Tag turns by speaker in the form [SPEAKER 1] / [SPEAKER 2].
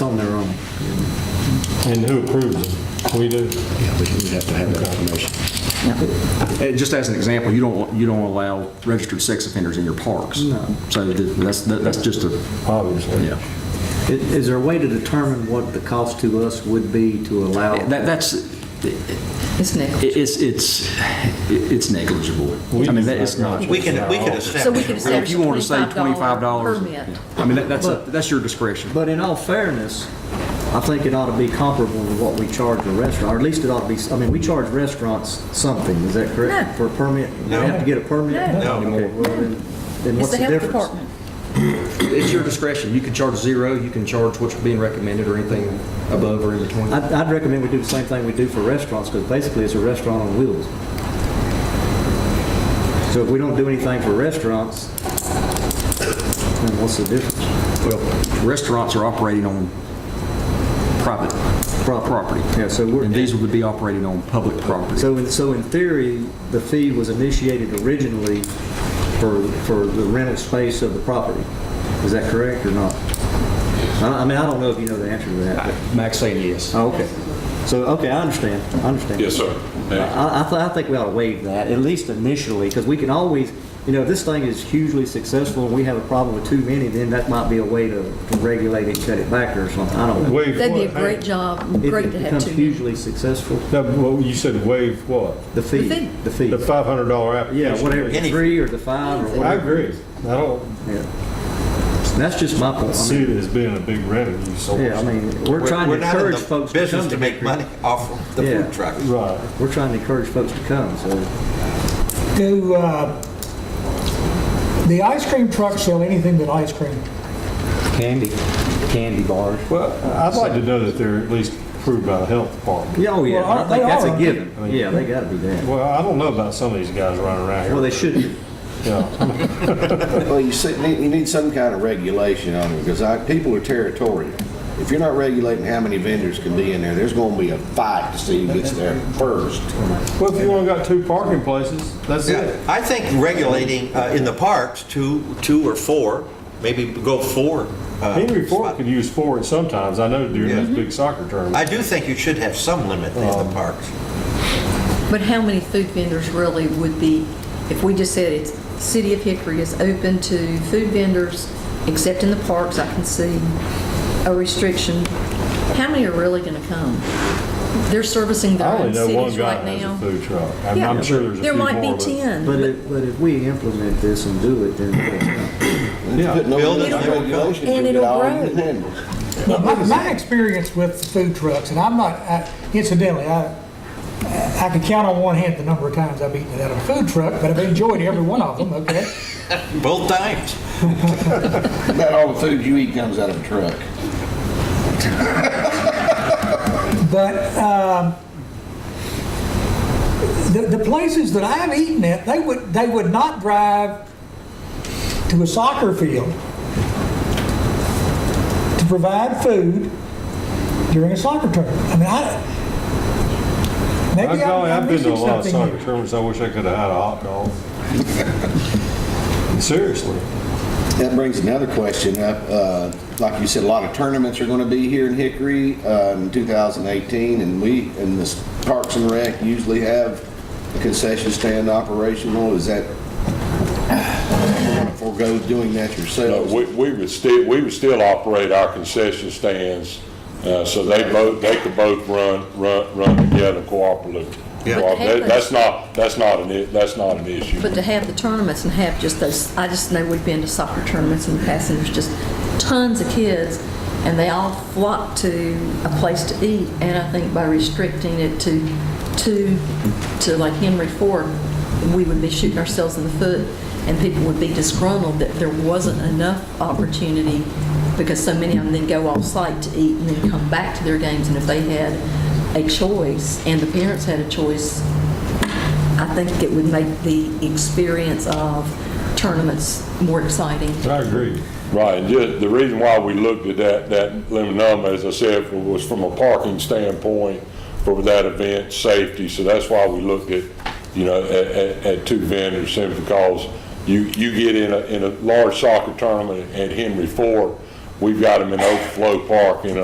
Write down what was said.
[SPEAKER 1] And who approves them? We do?
[SPEAKER 2] Yeah, we we have to have that information.
[SPEAKER 3] And just as an example, you don't, you don't allow registered sex offenders in your parks. No. So that- that's, that's just a,
[SPEAKER 1] Obviously.
[SPEAKER 3] yeah.
[SPEAKER 4] I- Is there a way to determine what the cost to us would be to allow?
[SPEAKER 3] That, that's, it-
[SPEAKER 5] It's Nick.
[SPEAKER 3] it's, it's, it's negligible. I mean, that is not.
[SPEAKER 6] We can, we can
[SPEAKER 5] So we
[SPEAKER 6] establish.
[SPEAKER 5] can
[SPEAKER 6] a
[SPEAKER 3] If
[SPEAKER 5] establish a
[SPEAKER 3] you want to say
[SPEAKER 5] $25
[SPEAKER 3] twenty-five dollars.
[SPEAKER 5] permit.
[SPEAKER 3] I mean, that- that's, a- that's your discretion.
[SPEAKER 4] But in all fairness, I think it ought to be comparable to what we charge a restaurant, or at least it ought to be, I mean, we charge restaurants something, is that correct?
[SPEAKER 5] No.
[SPEAKER 4] For a permit?
[SPEAKER 6] No.
[SPEAKER 4] They have to get a permit?
[SPEAKER 6] No. No.
[SPEAKER 4] Okay, well, Then then
[SPEAKER 5] It's
[SPEAKER 4] what's
[SPEAKER 5] the
[SPEAKER 4] the
[SPEAKER 5] health
[SPEAKER 4] difference?
[SPEAKER 5] department.
[SPEAKER 3] It's your discretion. You can charge zero, you can charge what's being recommended or anything above or in between.
[SPEAKER 4] I'd, I'd recommend we do the same thing we do for restaurants, because basically it's a restaurant on wheels. So if we don't do anything for restaurants, then what's the difference?
[SPEAKER 3] Well, restaurants are operating on private property.
[SPEAKER 4] Yeah, so we're.
[SPEAKER 3] And these would be operating on public property.
[SPEAKER 4] So, in- so in theory, the fee was initiated originally for, for the rental space of the property. Is that correct or not? I I mean, I don't know if you know the answer to that.
[SPEAKER 3] Max saying yes.
[SPEAKER 4] but- Oh, okay. So, okay, I understand, I understand.
[SPEAKER 7] Yes, sir. Yeah.
[SPEAKER 4] I, I, th- I think we ought to waive that, at least initially, because we can always, you know, if this thing is hugely successful and we have a problem with too many, then that might be a way to to regulate it, cut it back or something, I don't know.
[SPEAKER 1] Waive
[SPEAKER 5] That'd be a
[SPEAKER 1] what?
[SPEAKER 5] great job,
[SPEAKER 4] If
[SPEAKER 5] great
[SPEAKER 4] it
[SPEAKER 5] to have
[SPEAKER 4] becomes
[SPEAKER 5] two.
[SPEAKER 4] hugely successful,
[SPEAKER 1] No, but what you said waive what?
[SPEAKER 4] the fee,
[SPEAKER 5] fee.
[SPEAKER 4] the fee.
[SPEAKER 1] The $500 application?
[SPEAKER 4] Yeah, whatever, the
[SPEAKER 6] Any-
[SPEAKER 4] three or the five or
[SPEAKER 1] I
[SPEAKER 4] whatever.
[SPEAKER 1] agree. I don't
[SPEAKER 4] Yeah. That's just my point. I
[SPEAKER 1] see
[SPEAKER 4] mean,
[SPEAKER 1] it as being a big revenue source.
[SPEAKER 4] Yeah, I mean, we're trying to
[SPEAKER 6] We're not in
[SPEAKER 4] encourage
[SPEAKER 6] the
[SPEAKER 4] folks to come
[SPEAKER 6] Business
[SPEAKER 4] to
[SPEAKER 6] to make
[SPEAKER 4] Hickory.
[SPEAKER 6] money off of the
[SPEAKER 4] Yeah.
[SPEAKER 6] food truck.
[SPEAKER 1] Right.
[SPEAKER 4] We're trying to encourage folks to come, so.
[SPEAKER 8] Do, uh, the ice cream trucks sell anything but ice cream?
[SPEAKER 4] Candy, candy bars.
[SPEAKER 1] Well, I'd like to know that they're at least approved by the health department.
[SPEAKER 4] Yeah, oh yeah,
[SPEAKER 8] Well,
[SPEAKER 4] I think
[SPEAKER 8] they
[SPEAKER 4] that's a
[SPEAKER 8] are.
[SPEAKER 4] given. Yeah, they gotta be that.
[SPEAKER 1] Well, I don't know about some of these guys running around here.
[SPEAKER 4] Well, they should be.
[SPEAKER 1] Yeah.
[SPEAKER 2] Well, you see, need- you need some kind of regulation on it, because I, people are territorial. If you're not regulating how many vendors can be in there, there's gonna be a fight to see who gets there first.
[SPEAKER 1] Well, if you only got two parking places, that's
[SPEAKER 6] Yeah,
[SPEAKER 1] it.
[SPEAKER 6] I think regulating uh, in the parks, two, two or four, maybe go four. uh,
[SPEAKER 1] Henry Ford could use four at sometimes. I know during those big soccer tournaments.
[SPEAKER 6] I do think you should have some limit in
[SPEAKER 4] Um,
[SPEAKER 6] the parks.
[SPEAKER 5] But how many food vendors really would be, if we just said it's, City of Hickory is open to food vendors, except in the parks, I can see a restriction. How many are really going to come? They're servicing their
[SPEAKER 1] I only
[SPEAKER 5] own
[SPEAKER 1] know one
[SPEAKER 5] cities
[SPEAKER 1] guy
[SPEAKER 5] right
[SPEAKER 1] has a
[SPEAKER 5] now.
[SPEAKER 1] food truck. I mean,
[SPEAKER 5] Yeah,
[SPEAKER 1] I'm sure there's a
[SPEAKER 5] There
[SPEAKER 1] few more.
[SPEAKER 5] might be
[SPEAKER 1] but-
[SPEAKER 5] 10.
[SPEAKER 4] But if, but if we implement this and do it, then
[SPEAKER 2] Put no
[SPEAKER 6] Build it,
[SPEAKER 2] limit on
[SPEAKER 6] it'll grow.
[SPEAKER 2] regulations,
[SPEAKER 5] And
[SPEAKER 2] you'll get
[SPEAKER 5] it'll
[SPEAKER 2] all the
[SPEAKER 5] grow.
[SPEAKER 2] vendors.
[SPEAKER 8] Well, My, my experience with food trucks, and I'm not, I- incidentally, I, I can count on one hand the number of times I've eaten at a food truck, but I've enjoyed every one of them, okay?
[SPEAKER 6] Both times.
[SPEAKER 2] About all the food you eat comes out of a truck.
[SPEAKER 8] But um, the the places that I've eaten at, they would, they would not drive to a soccer field to provide food during a soccer tournament. I mean, I,
[SPEAKER 1] I'm
[SPEAKER 8] maybe
[SPEAKER 1] telling you,
[SPEAKER 8] I'm
[SPEAKER 1] I've been to a
[SPEAKER 8] missing
[SPEAKER 1] lot of
[SPEAKER 8] something
[SPEAKER 1] soccer
[SPEAKER 8] here.
[SPEAKER 1] tournaments. I wish I could have had a hot dog. Seriously.
[SPEAKER 2] That brings another question up. Uh, Like you said, a lot of tournaments are going to be here in Hickory uh, in 2018, and we, and the Parks and Rec usually have a concession stand operational. Is that, forego doing that
[SPEAKER 7] No,
[SPEAKER 2] yourselves?
[SPEAKER 7] we, we would still, we would still operate our concession stands, uh, so they both, they could both run, run, run together cooperatively.
[SPEAKER 6] Yeah.
[SPEAKER 5] But they
[SPEAKER 7] That- That's not, that's not an, i- that's not an issue.
[SPEAKER 5] But to have the tournaments and have just those, I just know we've been to soccer tournaments in the past, and there's just tons of kids, and they all flock to a place to eat, and I think by restricting it to two, to like Henry Ford, we would be shooting ourselves in the foot, and people would be disgruntled that there wasn't enough opportunity, because so many of them then go off-site to eat and then come back to their games, and if they had a choice, and the parents had a choice, I think it would make the experience of tournaments more exciting.
[SPEAKER 1] I agree.
[SPEAKER 7] Right, and ju- the reason why we looked at that, that limit number, as I said, was from a parking standpoint for that event, safety, so that's why we looked at, you know, at, at, at two vendors, simply because you, you get in a, in a large soccer tournament at Henry Ford, we've got them in overflow park in a